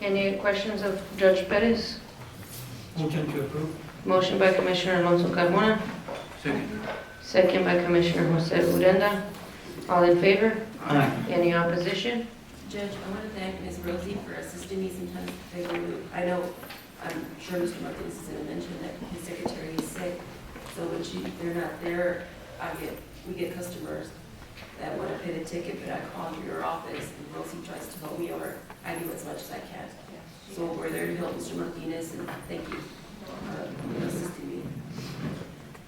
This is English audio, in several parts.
Any questions of Judge Perez? Motion to approve. Motion by Commissioner Alonso Carmona, Second. second by Commissioner Jose Urenda. All in favor? Aye. Any opposition? Judge, I want to thank Ms. Rosie for assisting me sometimes figuring, I know, I'm sure Mr. Martinez is going to mention that his secretary is sick, so when she, they're not there, I get, we get customers that want to pay the ticket, but I call your office, and Rosie tries to help me, or I do as much as I can. So we're there to help Mr. Martinez, and thank you uh, for assisting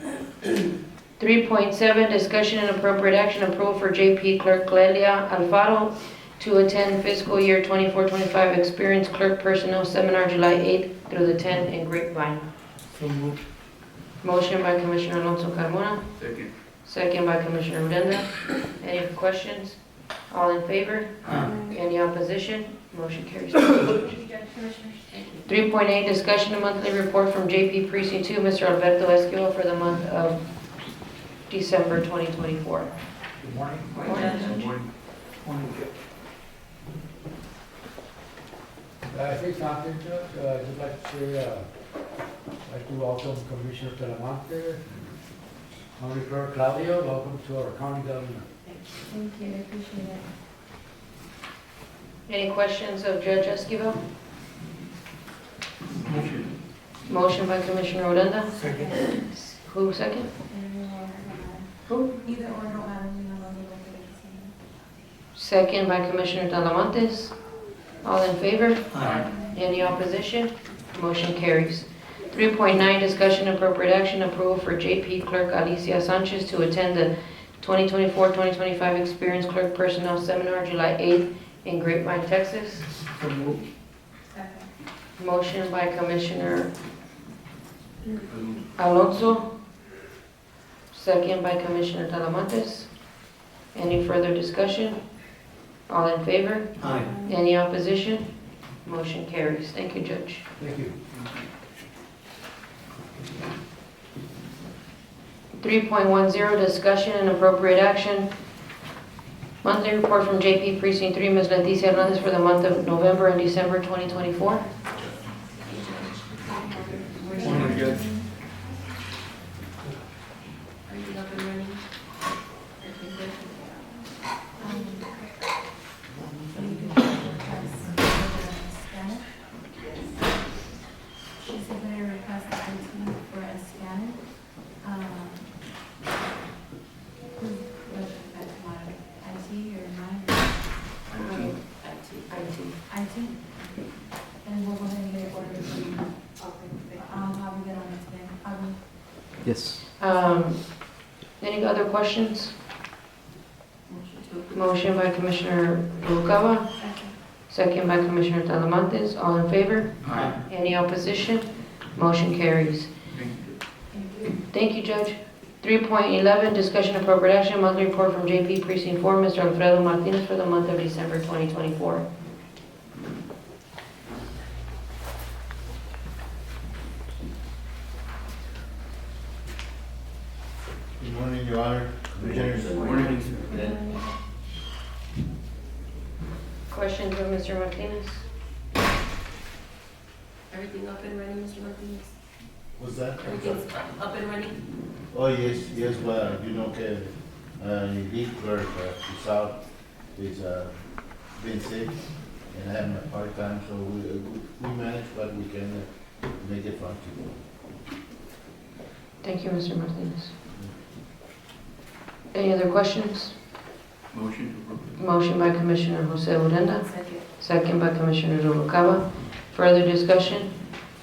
me. 3.7, discussion and appropriate action approval for JP Clerk Clelia Alfaro to attend fiscal year 24-25 Experience Clerk Personnel Seminar, July 8th through the 10th in Grapevine. So moved. Motion by Commissioner Alonso Carmona, Second. second by Commissioner Urenda. Any questions? All in favor? Aye. Any opposition? Motion carries. Thank you. 3.8, discussion and monthly report from JP Precinct 2, Mr. Alberto Esquivel for the month of December 2024. Good morning. Morning, Judge. Good morning. Morning, Judge. Uh, Say something, Judge, Uh, I'd like to say, uh, I'd like to welcome Commissioner Talamonte, County Clerk Claudio, welcome to our county government. Thank you, I appreciate it. Any questions of Judge Esquivel? Motion. Motion by Commissioner Odena. Second. Who second? Either or, Herman. Who? Either or, Herman, you know, those are both good to see. Second by Commissioner Talamontes. All in favor? Aye. Any opposition? Motion carries. 3.9, discussion and appropriate action approval for JP Clerk Alicia Sanchez to attend the 2024-2025 Experience Clerk Personnel Seminar, July 8th in Grapevine, Texas. So moved. Second. Motion by Commissioner Um, Alonso, second by Commissioner Talamontes. Any further discussion? All in favor? Aye. Any opposition? Motion carries. Thank you, Judge. Thank you. 3.10, discussion and appropriate action. Monthly report from JP Precinct 3, Ms. Leticia Hernandez for the month of November and December 2024. Morning, Judge. Are you up and running? Okay, good. Um, you can request the scanner. She submitted a request to IT for a scanner. Um, who would that come out of? IT or mine? Okay, back to you. IT. And we'll go ahead and get it ordered. Um, I'll be good on it today. Um, Yes. Um, Any other questions? Motion to approve. Motion by Commissioner Noguera, second. second by Commissioner Talamontes. All in favor? Aye. Any opposition? Motion carries. Thank you. Thank you, Judge. 3.11, discussion and appropriate action, monthly report from JP Precinct 4, Mr. Alfredo Martinez for the month of December 2024. Good morning, Your Honor. Commissioners. Good morning. Questions for Mr. Martinez? Everything up and running, Mr. Martinez? What's that? Everything's up up and running? Oh, yes, yes, well, you know, que, uh, the lead clerk, uh, is out, is, uh, been sick, and having a hard time, so we, uh, we manage what we can uh, make it function. Thank you, Mr. Martinez. Any other questions? Motion to approve. Motion by Commissioner Jose Urenda, Second. second by Commissioner Noguera. Further discussion?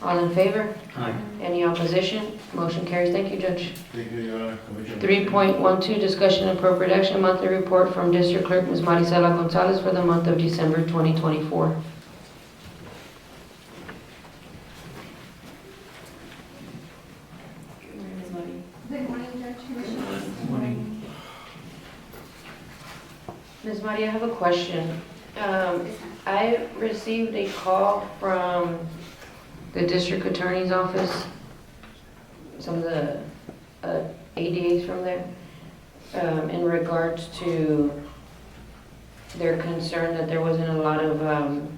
All in favor? Aye. Any opposition? Motion carries. Thank you, Judge. Thank you, Your Honor, Commissioner. 3.12, discussion and appropriate action, monthly report from District Clerk Ms. Marisela Gonzalez for the month of December 2024. Good morning, Ms. Martinez. Good morning, Judge Commissioners. Good morning. Ms. Maria, I have a question. Um, I received a call from the District Attorney's Office, some of the uh, ADAs from there, um, in regards to their concern that there wasn't a lot of um,